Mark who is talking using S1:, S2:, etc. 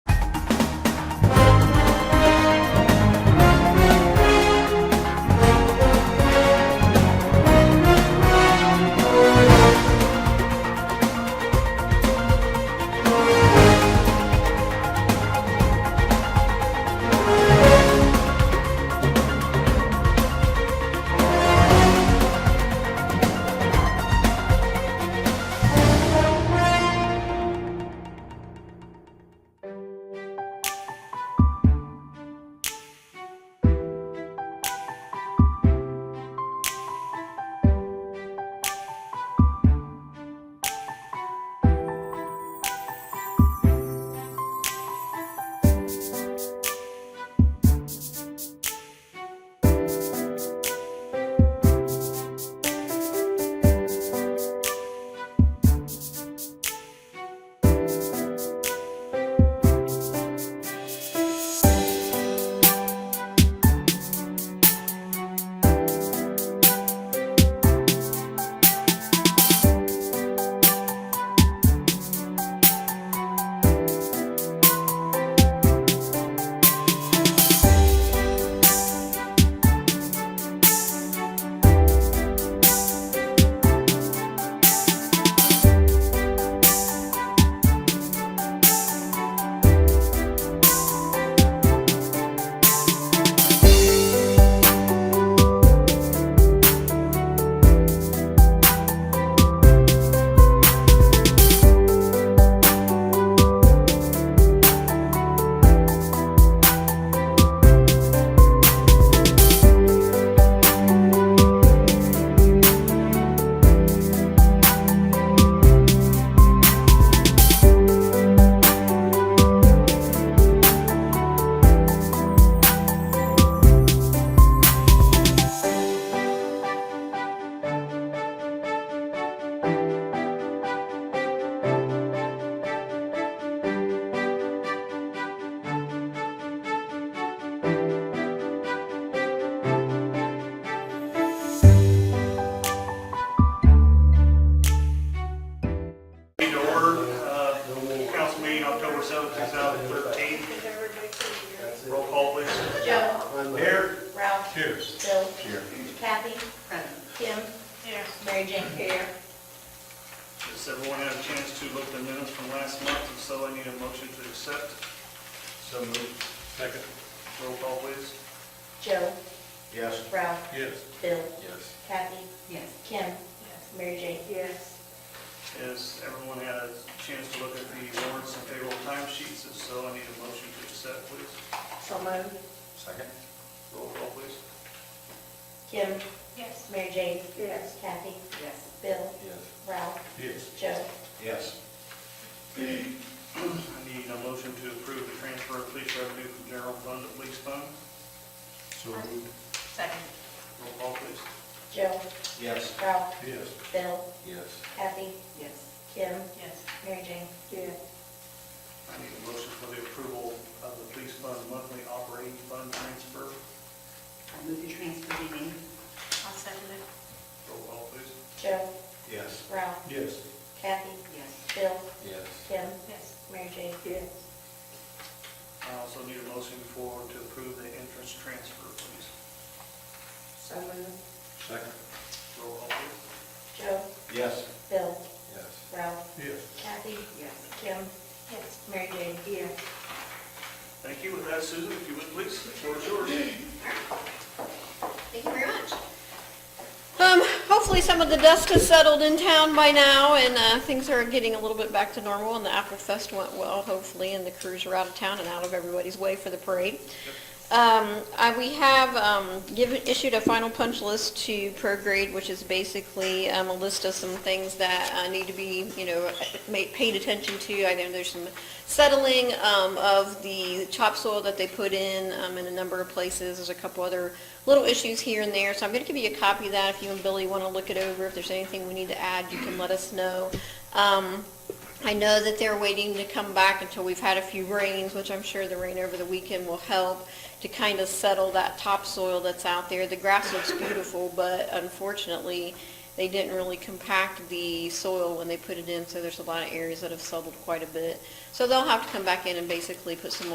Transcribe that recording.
S1: uh, 2013. Roll call, please.
S2: Joe,
S1: Here.
S2: Ralph,
S1: Here.
S2: Bill,
S1: Here.
S2: Kathy, Kim, Mary Jane. Here.
S1: Does everyone have a chance to look at the minutes from last month? If so, I need a motion to accept. So moved. Second. Roll call, please.
S2: Joe,
S3: Yes.
S2: Ralph,
S1: Yes.
S2: Bill,
S3: Yes.
S2: Kathy,
S4: Yes.
S2: Kim, Mary Jane. Yes.
S1: Has everyone had a chance to look at the warrants and payroll timesheets? If so, I need a motion to accept, please.
S2: So moved.
S3: Second?
S1: Roll call, please.
S2: Kim,
S4: Yes.
S2: Mary Jane. Yes. Kathy,
S4: Yes.
S2: Bill,
S3: Yes.
S2: Ralph,
S1: Yes.
S2: Joe.
S3: Yes.
S1: I need a motion to approve the transfer of police revenue from general fund to police fund.
S3: So
S4: Second.
S1: Roll call, please.
S2: Joe,
S3: Yes.
S2: Ralph,
S3: Yes.
S2: Bill,
S3: Yes.
S2: Kathy,
S4: Yes.
S2: Kim,
S4: Yes.
S2: Mary Jane. Yes.
S1: I need a motion for the approval of the police fund monthly operating fund transfer.
S4: I move the transfer be made. I'll second it.
S1: Roll call, please.
S2: Joe,
S3: Yes.
S2: Ralph,
S3: Yes.
S2: Kathy,
S4: Yes.
S2: Bill,
S3: Yes.
S2: Kim,
S4: Yes.
S2: Mary Jane. Yes.
S1: I also need a motion for, to approve the entrance transfer, please.
S2: So moved.
S3: Second?
S1: Roll call, please.
S2: Joe,
S3: Yes.
S2: Bill,
S3: Yes.
S2: Ralph,
S3: Yes.
S2: Kathy,
S4: Yes.
S2: Kim,
S4: Yes.
S2: Mary Jane. Yes.
S1: Thank you. With that, Susan, if you would, please, the floor is yours.
S5: Thank you very much.
S6: Um, hopefully some of the dust has settled in town by now and, uh, things are getting a little bit back to normal and the Apple Fest went well, hopefully, and the crews are out of town and out of everybody's way for the parade. Um, I, we have, um, given, issued a final punch list to ProGrade, which is basically, um, a list of some things that, uh, need to be, you know, ma- paid attention to. I know there's some settling, um, of the topsoil that they put in, um, in a number of places. There's a couple other little issues here and there, so I'm gonna give you a copy of that if you and Billy wanna look it over. If there's anything we need to add, you can let us know. Um, I know that they're waiting to come back until we've had a few rains, which I'm sure the rain over the weekend will help to kind of settle that topsoil that's out there. The grass looks beautiful, but unfortunately, they didn't really compact the soil when they put it in, so there's a lot of areas that have settled quite a bit. So they'll have to come back in and basically put some